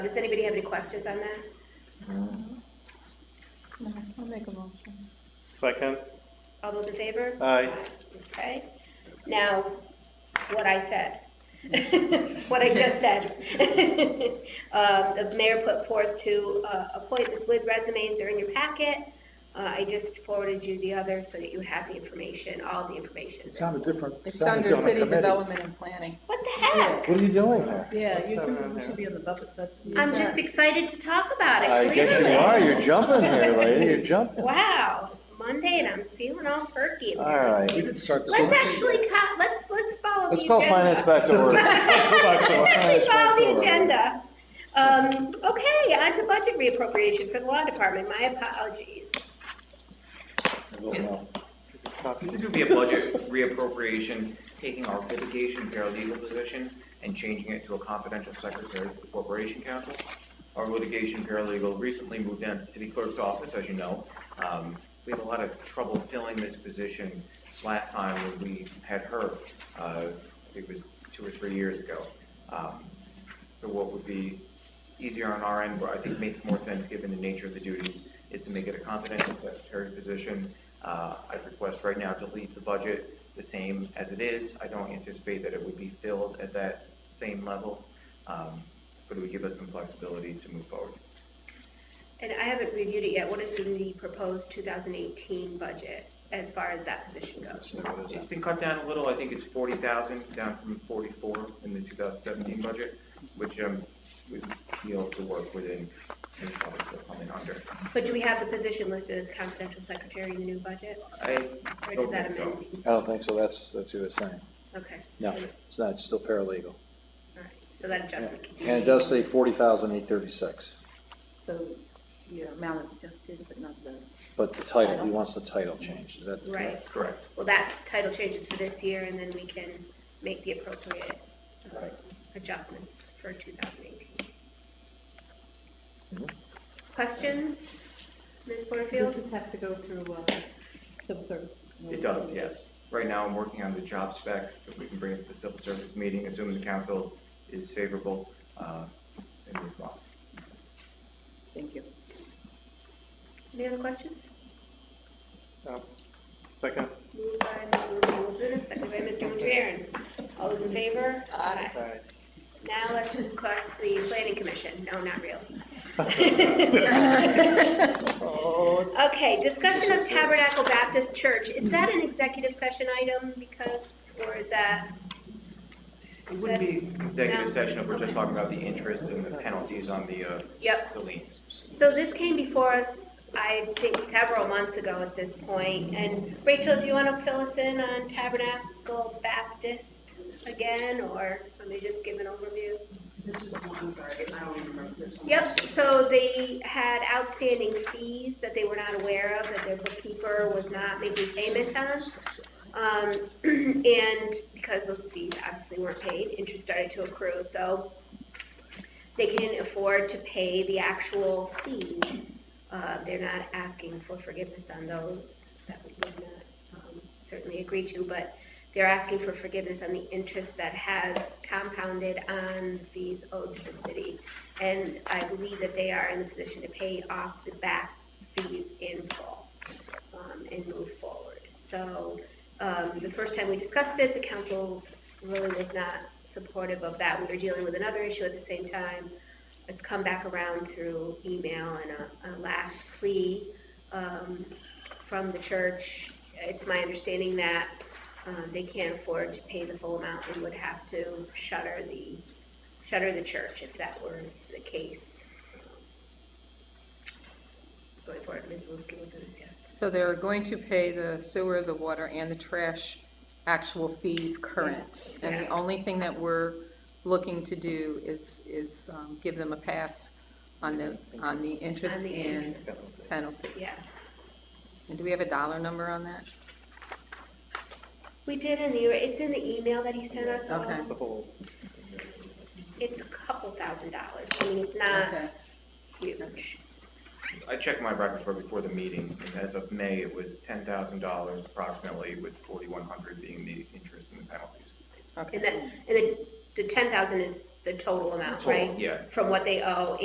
Does anybody have any questions on that? No, I'll make a motion. Second, All those in favor? aye. Okay, now, what I said, what I just said. Uh, The mayor put forth two uh, appointments with resumes, they're in your packet. Uh, I just forwarded you the other so that you have the information, all the information. It's on a different. It's sounded under on a city committee. development and planning. What the heck? What are you doing there? Yeah, Let's you have it do- on you there. should be on the budget, but. I'm just excited to talk about it. I guess you clearly. are, you're jumping here, lady, you're jumping. Wow, it's Monday and I'm feeling all perky. All right. We did start this. Let's actually, co- let's, let's follow the Let's go agenda. finance back to work. Let's actually Finance back to follow the work. agenda. Um, okay, on to budget reappropriation for the law department, my apologies. I don't know. This would be a budget reappropriation, taking our litigation paralegal position and changing it to a confidential secretary for the corporation counsel. Our litigation paralegal recently moved down to the city clerk's office, as you know. Um, We had a lot of trouble filling this position last time when we had her, uh, I think it was two or three years ago. Um, So what would be easier on our end, but I think makes more sense given the nature of the duties, is to make it a confidential secretary position uh, I request right now to leave the budget the same as it is. I don't anticipate that it would be filled at that same level, um, but it would give us some flexibility to move forward. And I haven't reviewed it yet, what is in the proposed 2018 budget as far as that position goes? It's been cut down a little, I think it's forty thousand, down from forty-four in the two thousand seventeen budget, which, um, we feel to work within, and probably still coming under. But do we have the position listed as confidential secretary in the new budget? I Or does don't that think so. amend? I don't think so, that's, that's what you were saying. Okay, No, it's not, it's still paralegal. all right, so that adjustment can be. And it does say forty thousand eight thirty-six, So, yeah, amount is adjusted, but not the. but the title, he wants the title changed, is that? Right, Correct. well, that title changes for this year, and then we can make the appropriate uh, Right. adjustments for 2018. Mhm. Questions, Ms. Does Porterfield? this have to go through, uh, civil service? It does, yes. Right now, I'm working on the job spec, that we can bring it to the civil service meeting, assuming the council is favorable uh, in this law. Thank you. Any other questions? Um, Second, Moved by Mrs. Walden, seconded by Mr. Mangiaran. All those in favor? Aye. aye. Now let's discuss the planning commission. No, not really. Oh, it's. Okay, discussion of Tabernacle Baptist Church. Is that an executive session item because, or is that? It wouldn't be No. executive session if we're just talking about the interest and the penalties on the uh, Yep, the liens. So this came before us, I think, several months ago at this point. And Rachel, do you want to fill us in on Tabernacle Baptist again, or let me just give an overview? This is the one, I'm sorry, I don't even remember this one. Yep, so they had outstanding fees that they were not aware of, that their bookkeeper was not making payments on. Um, and because those fees obviously weren't paid, interest started to accrue, so they couldn't afford to pay the actual fees. Uh, they're not asking for forgiveness on those, that we would not, um, certainly agree to, but they're asking for forgiveness on the interest that has compounded on fees owed to the city. And I believe that they are in the position to pay off the back fees in full, um, and move forward. So, um, the first time we discussed it, the council really was not supportive of that. We were dealing with another issue at the same time. It's come back around through email and a, a last plea, um, from the church. It's my understanding that, um, they can't afford to pay the full amount and would have to shutter the, shutter the church if that were the case. Going forward, Ms. Lewski will do this, yes. So they're going to pay the sewer, the water, and the trash actual fees current. And the Yes. only thing that we're looking to do is, is um, give them a pass on the, on the interest On the and penalty. Yeah. And do we have a dollar number on that? We did in the, it's in the email that he sent us. Okay. It's a whole, It's a couple thousand dollars. I mean, it's not Okay. huge. I checked my records for before the meeting, and as of May, it was ten thousand dollars approximately, with forty-one hundred being the interest and the penalties. And Okay. that, and the, the ten thousand is the total amount, Total, right? Yeah, From what they owe